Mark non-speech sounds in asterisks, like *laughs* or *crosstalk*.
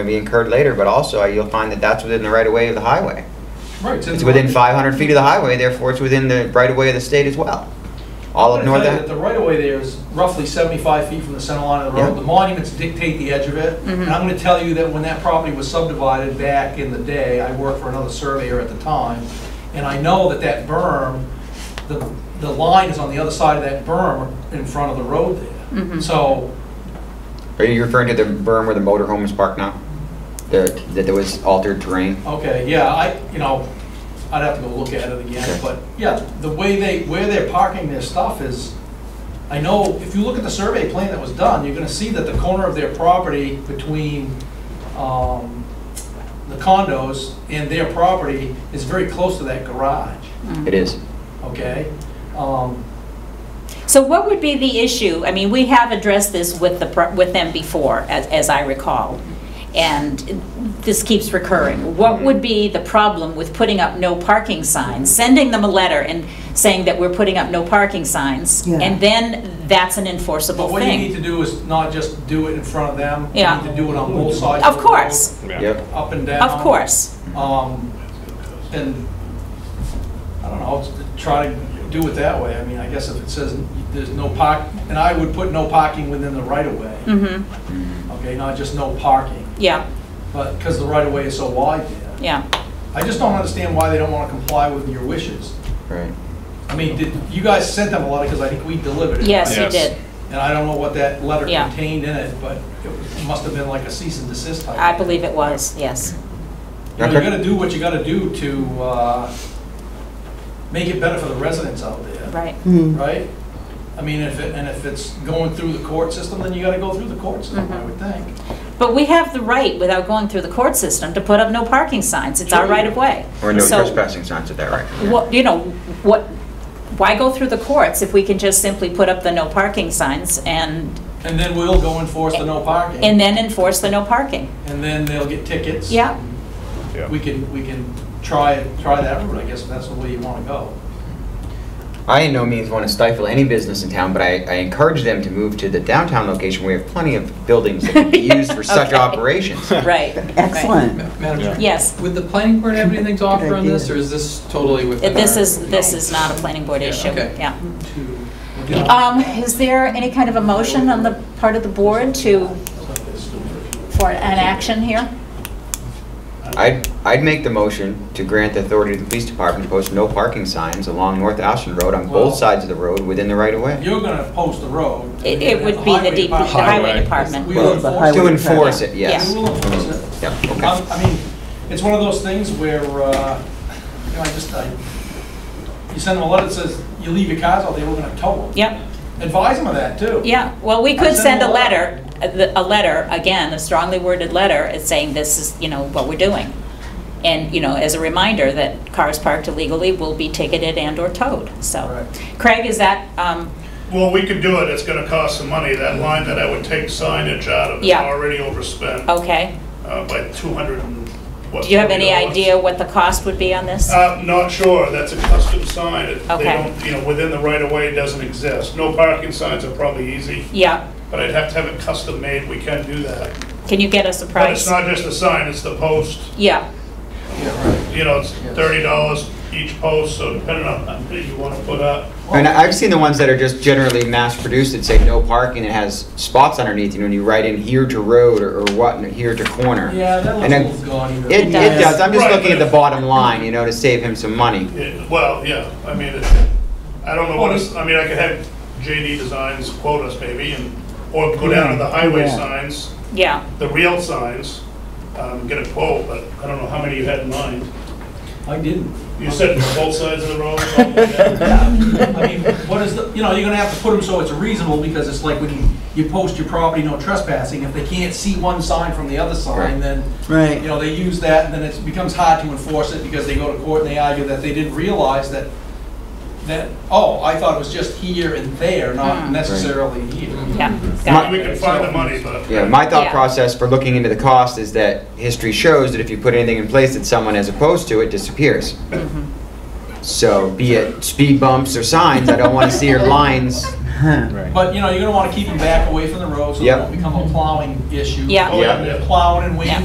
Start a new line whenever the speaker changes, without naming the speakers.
to be incurred later, but also you'll find that that's within the right of way of the highway.
Right.
It's within 500 feet of the highway, therefore it's within the right of way of the state as well. All of
I'm gonna
north,
tell you that
Ave-
the right-of-way there is roughly 75 feet from the center line of the
Yeah.
road. The monuments dictate the edge of it. And I'm going to tell you that when that property was subdivided back in the day, I worked for another surveyor at the time, and I know that that berm, the, the line is on the other side of that berm in front of the road there. So,
are you referring to the berm where the motor home is parked now? The- That there was altered terrain?
okay, yeah, I, you know, I'd have to go look at it
Okay.
again, but yeah, the way they, where they're parking their stuff is, I know, if you look at the survey plan that was done, you're gonna see that the corner of their property between, um, the condos and their property is very close to that garage,
It is.
okay? Um,
So what would be the issue? I mean, we have addressed this with the, pro- with them before, as, as I recall, and this keeps recurring. What would be the problem with putting up no parking signs, sending them a letter and saying that we're putting up no parking signs?
Yeah.
And then that's an enforceable
But what you need
thing.
to do is not just do it in front of them.
Yeah.
You need to do it on both sides.
Of
the road,
course,
Yep.
Up and down.
of course.
Um, and, I don't know, I'll try to do it that way. I mean, I guess if it says there's no park, and I would put no parking within the right of way,
hmm
Mm,
okay, not just no parking,
yeah,
but, because the right of way is so wide there.
yeah.
I just don't understand why they don't want to comply with your wishes.
Right.
I mean, did, you guys sent them a letter, because I think we delivered it.
Yes, you
Yes.
did.
And I don't know what that letter
Yeah.
contained in it, but it was- must have been like a cease and desist type.
I believe it was, yes.
You know, you
Okay.
gotta do what you gotta do to, uh, make it better for the residents out there,
Right.
Hmm.
right? I mean, if it, and if it's going through the court system, then you gotta go through the court system,
Mm-hmm.
I would think.
But we have the right, without going through the court system, to put up no parking signs. It's our right of way.
Or no
So-
trespassing signs at that right.
what, you know, what, why go through the courts if we can just simply put up the no parking signs and,
And then we'll go enforce the no parking.
and then enforce the no parking?
And then they'll get tickets.
Yeah.
Yeah.
We can, we can try, it- try that route, I guess, if that's the way you wanna go.
I in no means want to stifle any business in town, but I, I encourage them to move to the downtown location where we have plenty of buildings that
*laughs*
can be used for such
Okay. *laughs*
operations.
Right. right.
Excellent.
Madam Chair,
Yes,
would the planning board have anything to offer on this, or is this totally within
If this
our-
is, this is not a planning board
Yeah,
issue,
okay.
yeah.
To.
Um, is there any kind of a motion on the part of the board to, for an action here?
I'd, I'd make the motion to grant the authority to the police department to post no parking signs along North Ashland Road on
Well-
both sides of the road within the right of way.
You're gonna post the road.
It, it would be
Highway
the DP, the
department.
highway
Highway.
We
department.
will
Well, the
enforce
highway-
it.
To enforce it,
We
yes.
will enforce it.
Yeah,
Um,
okay.
I mean, it's one of those things where, uh, you know, I just, I, you send them a letter that says, you leave your cars out there, we're gonna tow them.
Yep.
Advise them of that, too.
Yeah, well, we
I
could
sent
send
them
a
a
letter, a the- a letter, again, a strongly worded letter, it's saying this is, you know, what we're doing. And, you know, as a reminder that cars parked illegally will be ticketed and/or towed, so.
Correct.
Craig, is that, um,
Well, we could do it, it's gonna cost some money, that line that I would take signage out of is
Yeah.
already overspent
okay?
uh, by 200 and what?
Do you have any
$40.
idea what the cost would be on this?
Uh, not sure, that's a custom sign, It- they
Okay.
don't, you know, within the right of way, it doesn't exist. No parking signs are probably easy,
Yeah,
but I'd have to have it custom made, we can do that.
can you get us a
But it's
price?
not just the sign, it's the post,
Yeah,
Yeah, right.
you know, it's
Yes.
$30 each post, so depending on how many you wanna put up.
And I've seen the ones that are just generally mass-produced that say no parking, it has spots underneath, and when you write in here to road or or what, and here to corner.
Yeah, that
And
looks a
then-
little gaudy. though.
It, it
does.
does, I'm just
Right,
looking at
but
the
if-
bottom line, you know, to save him some money.
Yeah, Well, yeah, I mean, it- I don't know what it's, I mean, I could have JD Designs quote us maybe, and, or go down to the highway
Yeah.
signs,
yeah,
the real signs, um, get a quote, but I don't know how many you had in mind.
I didn't.
You said both sides of the road? something like that?
I mean, what is the, you know, you're gonna have to put them so it's reasonable, because it's like when you, you post your property, no trespassing, if they can't see one sign from the other sign,
Right.
then You
Right.
know, they use that, and then it becomes hard to enforce it because they go to court and they argue that they didn't realize that, that, oh, I thought it was just here and there, not
Mm.
necessarily here.
*laughs*
yeah,
*laughs* My-
got
We
it.
can find the money, but.
Yeah, my thought
Yeah.
process for looking into the cost is that history shows that if you put anything in place that someone is opposed to, it disappears. So be it speed bumps or signs, I don't want to see your lines.
But, you know, you're gonna wanna keep them back away from the road so they
Yep.
don't become a plowing issue.
Yeah.
Oh, yeah.
They're Plowing and
Yeah.
waiting